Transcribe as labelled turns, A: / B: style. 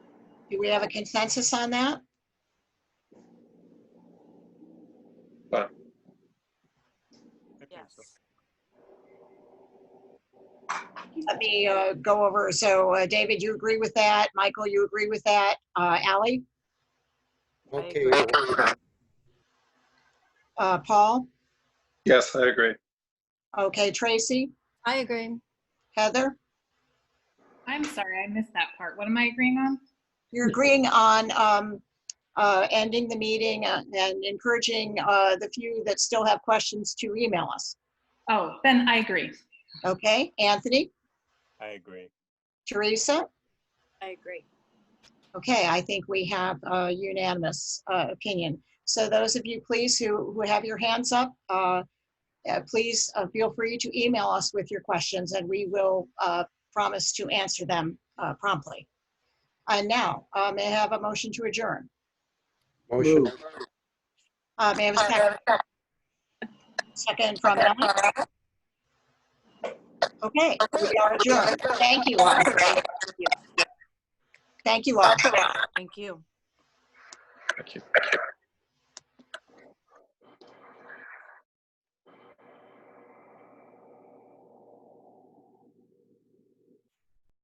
A: Do we have a consensus on that?
B: Yes.
A: Let me uh, go over. So uh, David, you agree with that? Michael, you agree with that? Uh, Ally?
C: Okay,
A: Uh, Paul?
D: Yes, I agree.
A: Okay, Tracy?
E: I agree.
A: Heather?
F: I'm sorry, I missed that part. What am I agreeing on?
A: You're agreeing on um, uh, ending the meeting uh, and encouraging uh, the few that still have questions to email us.
F: Oh, then I agree.
A: Okay, Anthony?
C: I agree.
A: Teresa?
E: I agree.
A: Okay, I think we have a unanimous uh, opinion. So those of you, please, who, who have your hands up, uh, uh, please uh, feel free to email us with your questions, and we will uh, promise to answer them uh, promptly. And now, uh, may I have a motion to adjourn?
C: Motion.
A: Uh, May I have a second? Second from Ellen? Okay, we are adjourned. Thank you all. Thank you all.
B: Thank you.
D: Thank you.